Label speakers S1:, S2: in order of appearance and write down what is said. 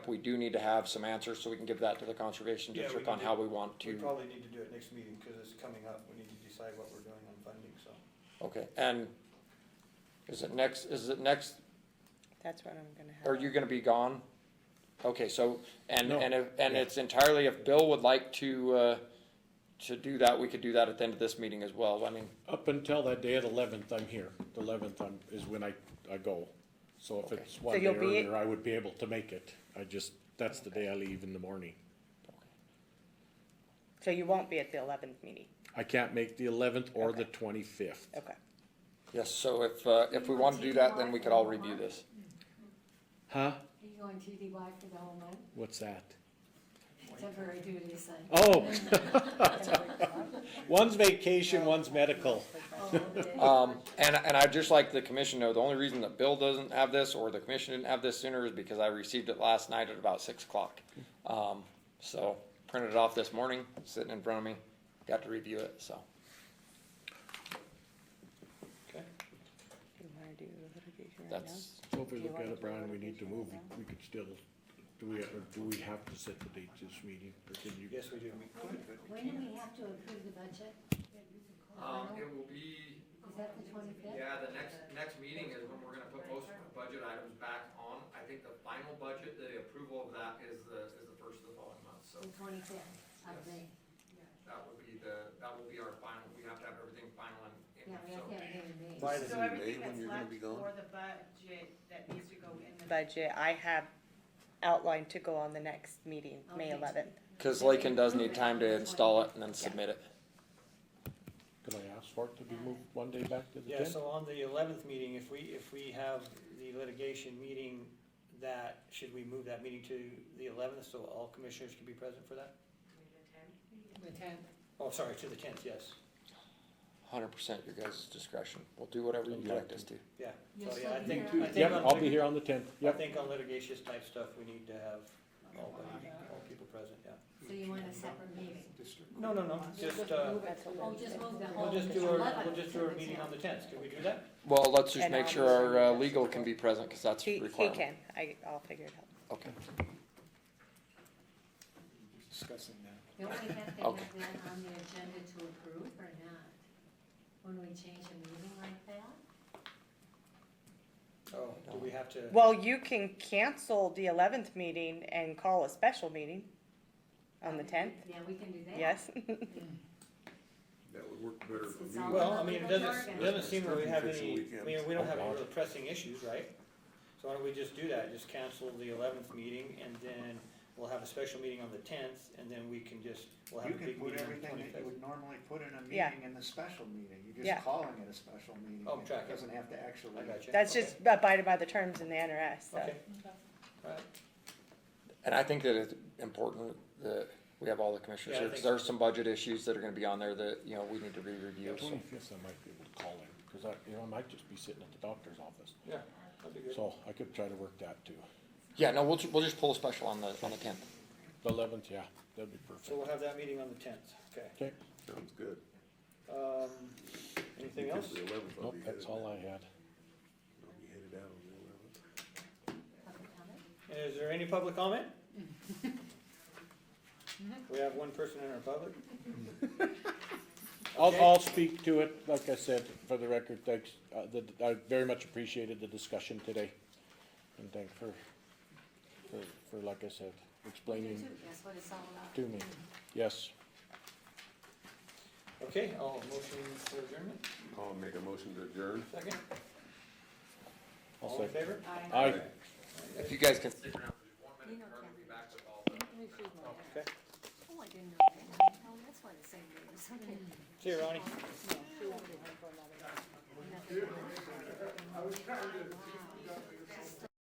S1: We do need to have some answers so we can give that to the conservation
S2: Yeah, we
S1: district
S2: can
S1: on
S2: do-
S1: how we want
S2: We
S1: to.
S2: probably need to do it next meeting, cause it's coming up, we need to decide what we're doing on funding, so.
S1: Okay, and is it next, is it next,
S3: That's what I'm gonna have.
S1: are you gonna be gone? Okay, so, and,
S4: No.
S1: and, if- and it's entirely if Bill would like to, uh, to do that, we could do that at the end of this meeting as well. I mean,
S4: Up until that day at eleventh, I'm here. The eleventh I'm, is when I, I go. So if
S1: Okay.
S4: it's one day
S3: you'll be-
S4: earlier, I would be able to make it. I just, that's the day I leave in the morning.
S3: So you won't be at the eleventh meeting,
S4: I can't make the eleventh or the twenty-fifth.
S3: okay.
S1: yes, so if, uh, if we want to do that, then we could all review this.
S4: Huh?
S5: Are you going TDY for the whole month?
S4: What's that?
S5: Temporary duties and.
S4: Oh, one's vacation, one's medical.
S1: Um, and, and I'd just like the commission to know, the only reason that Bill doesn't have this, or the commission didn't have this sooner, is because I received it last night at about six o'clock. Um, so, printed it off this morning, sitting in front of me, got to review it, so.
S3: Do you wanna do litigation right now?
S1: That's,
S4: So if we look at it, Brian, we need to move. We could still, do we, or do we have to set the date this meeting? Or can you?
S2: Yes, we do, we could, but we
S5: When do we have to approve the budget?
S6: Um,
S5: Final?
S6: it will be,
S5: Is that the twenty-fifth?
S6: yeah, the next, next meeting is when we're gonna put most of the budget items back on. I think the final budget, the approval of that is the, is the first of the following month, so
S5: The twenty-fifth of May.
S6: that will be the, that will be our final, we have to have everything final and,
S5: Yeah, we
S6: so.
S5: have to have it in May.
S2: By the-
S7: So
S2: new
S7: everything
S2: date when
S7: that's
S2: you're gonna
S7: left
S2: be gone?
S7: for the budget that needs to go in the.
S3: Budget, I have outlined to go on the next meeting, May
S5: Okay.
S3: eleventh.
S1: cause Lakin does need time to install it and then submit it.
S4: Can I ask for it to be moved one day back to the
S2: Yeah,
S4: tenth?
S2: so on the eleventh meeting, if we, if we have the litigation meeting, that, should we move that meeting to the eleventh, so all commissioners can be present for that?
S5: The tenth.
S2: Oh, sorry, to the tenth, yes,
S1: Hundred percent your guys' discretion, we'll do whatever you direct us to.
S2: yeah.
S5: You'll
S2: So,
S5: still
S2: yeah, I
S5: be
S2: think,
S5: here.
S2: I think
S4: Yep,
S2: on
S4: I'll be
S2: lit-
S4: here on the tenth.
S2: I
S4: Yep.
S2: think on litigious type stuff, we need to have all, all people present, yeah.
S5: So you want a separate meeting?
S2: No, no, no, just, uh,
S5: Oh, just move the whole.
S2: we'll just do our, we'll just do our
S5: 11th to the
S2: meeting on the
S5: 10th.
S2: tenth, can we do that?
S1: Well, let's just
S3: And
S1: make
S3: I'll
S1: sure
S3: just-
S1: our, uh, legal can be present, cause that's
S3: He, he
S1: required.
S3: can, I, I'll figure it out.
S1: Okay,
S2: Discussing that.
S5: Don't we have to
S1: Okay.
S5: have that on the agenda to approve or not? When we change a meeting like that?
S2: Oh, do we have to?
S3: Well, you can cancel the eleventh meeting and call a special meeting on the tenth,
S5: Yeah, we can do that.
S3: yes?
S8: That would work better for
S5: It's
S8: me.
S5: all
S2: Well, I
S5: about
S2: mean, it
S5: the
S2: doesn't,
S5: jargon.
S2: it doesn't seem that we have
S8: Fix the
S2: any, I mean,
S8: weekends.
S2: we don't have any real pressing issues, right? So why don't we just do that, just cancel the eleventh meeting, and then we'll have a special meeting on the tenth, and then we can just, we'll have
S9: You
S2: a
S9: can
S2: big
S9: put
S2: meeting on the
S9: everything that you
S2: twenty-fifth.
S9: would normally put in a
S3: Yeah.
S9: meeting in the special meeting, you're
S3: Yeah.
S9: just calling it a special meeting.
S2: Oh, track it.
S9: It doesn't have to actually.
S2: I got you.
S3: That's just abided by the terms in the NRS, so.
S2: Okay, alright,
S1: and I think that it's important that we have all the commissioners
S2: Yeah, I
S1: here, cause
S2: think
S1: there are some budget issues that are gonna be on there that, you know, we need to re-review, so.
S4: Twenty-fifth, I might be able to call him, because I, you know, I might just be sitting at the doctor's office.
S2: yeah, that'd be good.
S4: So I could try to work that too.
S1: Yeah, no, we'll, ju- we'll just pull a special on the, on the tenth.
S4: The eleventh, yeah, that'd be
S2: So
S4: perfect.
S2: we'll have that meeting on the tenth, okay.
S4: Okay,
S8: Sounds good.
S2: Um, anything else?
S8: Because the 11th, I'll
S4: nope,
S8: be
S4: that's
S8: headed,
S4: all
S8: I'll
S4: I had.
S8: be headed out on the eleventh.
S5: Public comment?
S2: Is there any public comment? We have one person in our public.
S4: I'll,
S2: Okay.
S4: I'll speak to it, like I said, for the record, thanks, uh, the, I very much appreciated the discussion today. And thank for, for, for, like I said,
S5: You
S4: explaining
S5: too, That's what it's all about.
S4: to me. Yes,
S2: Okay, I'll motion for adjournment,
S8: I'll make a motion to adjourn.
S2: second.
S4: I'll
S2: All in
S4: second.
S2: favor?
S5: Aye.
S4: Aye.
S1: If you guys can.
S6: Stick around for just one
S5: You
S6: minute,
S5: know,
S6: Kurt will be
S5: Kathy.
S6: back with all the.
S2: Okay.
S5: Oh, I didn't know that. Oh, that's why the same name is, okay.
S2: See you, Ronnie.
S5: Nothing.